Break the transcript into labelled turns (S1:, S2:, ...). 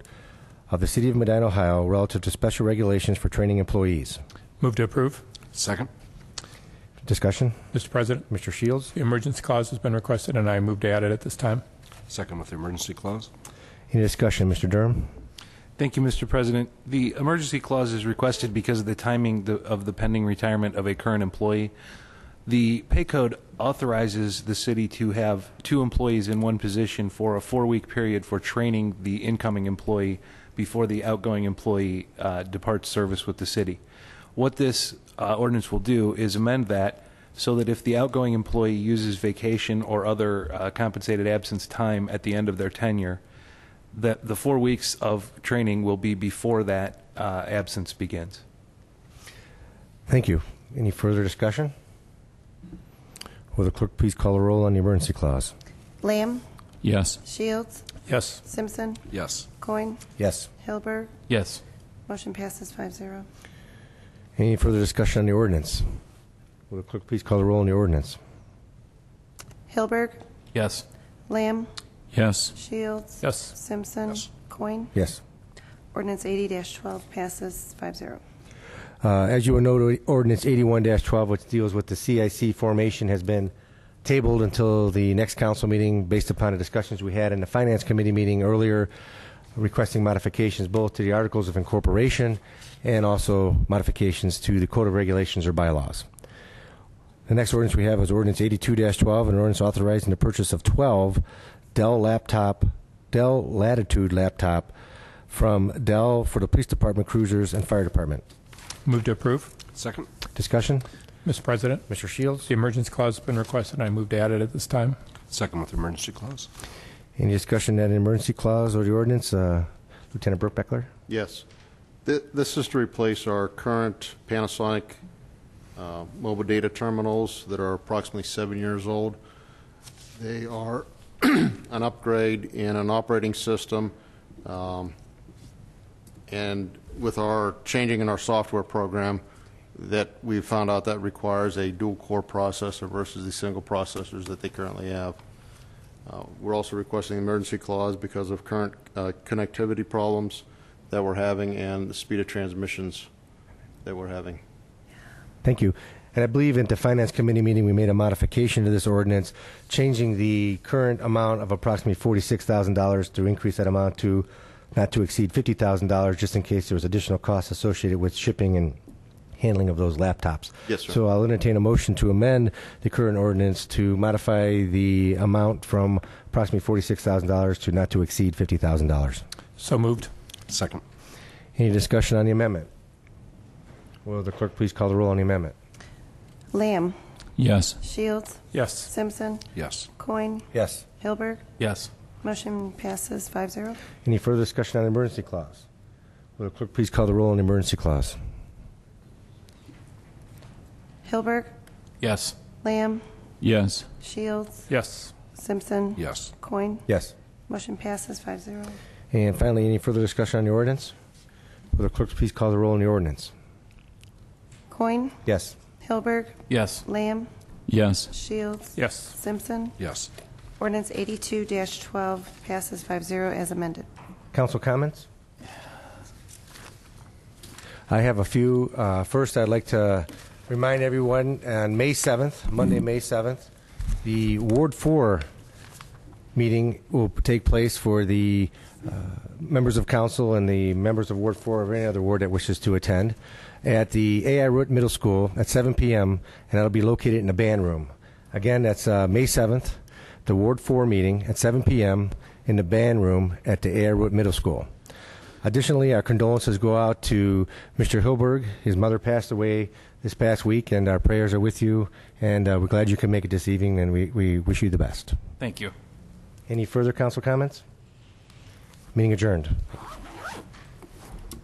S1: of the City of Medina, Ohio relative to special regulations for training employees.
S2: Move to approve.
S3: Second.
S1: Discussion?
S2: Mr. President,
S1: Mr. Shields?
S2: the emergency clause has been requested, and I move to add it at this time.
S3: Second with the emergency clause.
S1: Any discussion? Mr. Durham?
S4: Thank you, Mr. President. The emergency clause is requested because of the timing the- of the pending retirement of a current employee. The pay code authorizes the city to have two employees in one position for a four-week period for training the incoming employee before the outgoing employee uh, departs service with the city. What this uh, ordinance will do is amend that so that if the outgoing employee uses vacation or other uh, compensated absence time at the end of their tenure, that the four weeks of training will be before that uh, absence begins.
S1: Thank you. Any further discussion? Will the clerk please call a roll on the emergency clause?
S5: Lamb,
S6: Yes.
S5: Shields,
S2: Yes.
S5: Simpson,
S3: Yes.
S5: Coin,
S1: Yes.
S5: Hilberg.
S6: Yes.
S5: Motion passes five zero.
S1: Any further discussion on the ordinance? Will the clerk please call a roll on the ordinance?
S5: Hilberg,
S6: Yes.
S5: Lamb,
S6: Yes.
S5: Shields.
S2: Yes.
S5: Simpson. Coin.
S1: Yes.
S5: Ordinance eighty twelve passes five zero.
S1: Uh, As you will note, ordinance 81-12, which deals with the CIC formation, has been tabled until the next council meeting based upon the discussions we had in the Finance Committee meeting earlier, requesting modifications both to the Articles of Incorporation and also modifications to the Code of Regulations or bylaws. The next ordinance we have is ordinance 82-12, an ordinance authorizing the purchase of 12 Dell laptop, Dell Latitude laptop from Dell for the Police Department, Cruisers, and Fire Department.
S2: Move to approve.
S3: Second.
S1: Discussion?
S2: Mr. President,
S1: Mr. Shields?
S2: the emergency clause has been requested, and I move to add it at this time.
S3: Second with the emergency clause.
S1: Any discussion on the emergency clause or the ordinance? Uh, Lieutenant Brooke Beckler?
S7: Yes. Th- This is to replace our current Panasonic uh, mobile data terminals that are approximately seven years old. They are an upgrade in an operating system, um, and with our changing in our software program, that we found out that requires a dual-core processor versus the single processors that they currently have. Uh, We're also requesting an emergency clause because of current uh, connectivity problems that we're having and the speed of transmissions that we're having.
S1: Thank you. And I believe at the Finance Committee meeting, we made a modification to this ordinance, changing the current amount of approximately $46,000 to increase that amount to not to exceed $50,000, just in case there was additional costs associated with shipping and handling of those laptops.
S7: Yes, sir.
S1: So I'll entertain a motion to amend the current ordinance to modify the amount from approximately $46,000 to not to exceed $50,000.
S2: So moved.
S3: Second.
S1: Any discussion on the amendment? Will the clerk please call the roll on the amendment?
S5: Lamb,
S6: Yes.
S5: Shields,
S2: Yes.
S5: Simpson,
S3: Yes.
S5: Coin,
S1: Yes.
S5: Hilberg.
S6: Yes.
S5: Motion passes five zero.
S1: Any further discussion on the emergency clause? Will the clerk please call the roll on the emergency clause?
S5: Hilberg,
S6: Yes.
S5: Lamb,
S6: Yes.
S5: Shields,
S2: Yes.
S5: Simpson.
S3: Yes.
S5: Coin.
S1: Yes.
S5: Motion passes five zero.
S1: And finally, any further discussion on the ordinance? Will the clerk please call the roll on the ordinance?
S5: Coin,
S1: Yes.
S5: Hilberg,
S6: Yes.
S5: Lamb,
S6: Yes.
S5: Shields,
S2: Yes.
S5: Simpson.
S3: Yes.
S5: Ordinance 82-12 passes 5-0 as amended.
S1: Council comments? I have a few. Uh, First, I'd like to remind everyone, on May 7th, Monday, May 7th, the Ward 4 meeting will take place for the uh, members of council and the members of Ward 4 or any other ward that wishes to attend at the AI Root Middle School at 7 p.m., and that'll be located in the band room. Again, that's uh, May 7th, the Ward 4 meeting at 7 p.m. in the band room at the AI Root Middle School. Additionally, our condolences go out to Mr. Hilberg. His mother passed away this past week, and our prayers are with you. And uh, we're glad you can make it this evening, and we, we wish you the best.
S6: Thank you.
S1: Any further council comments? Meeting adjourned.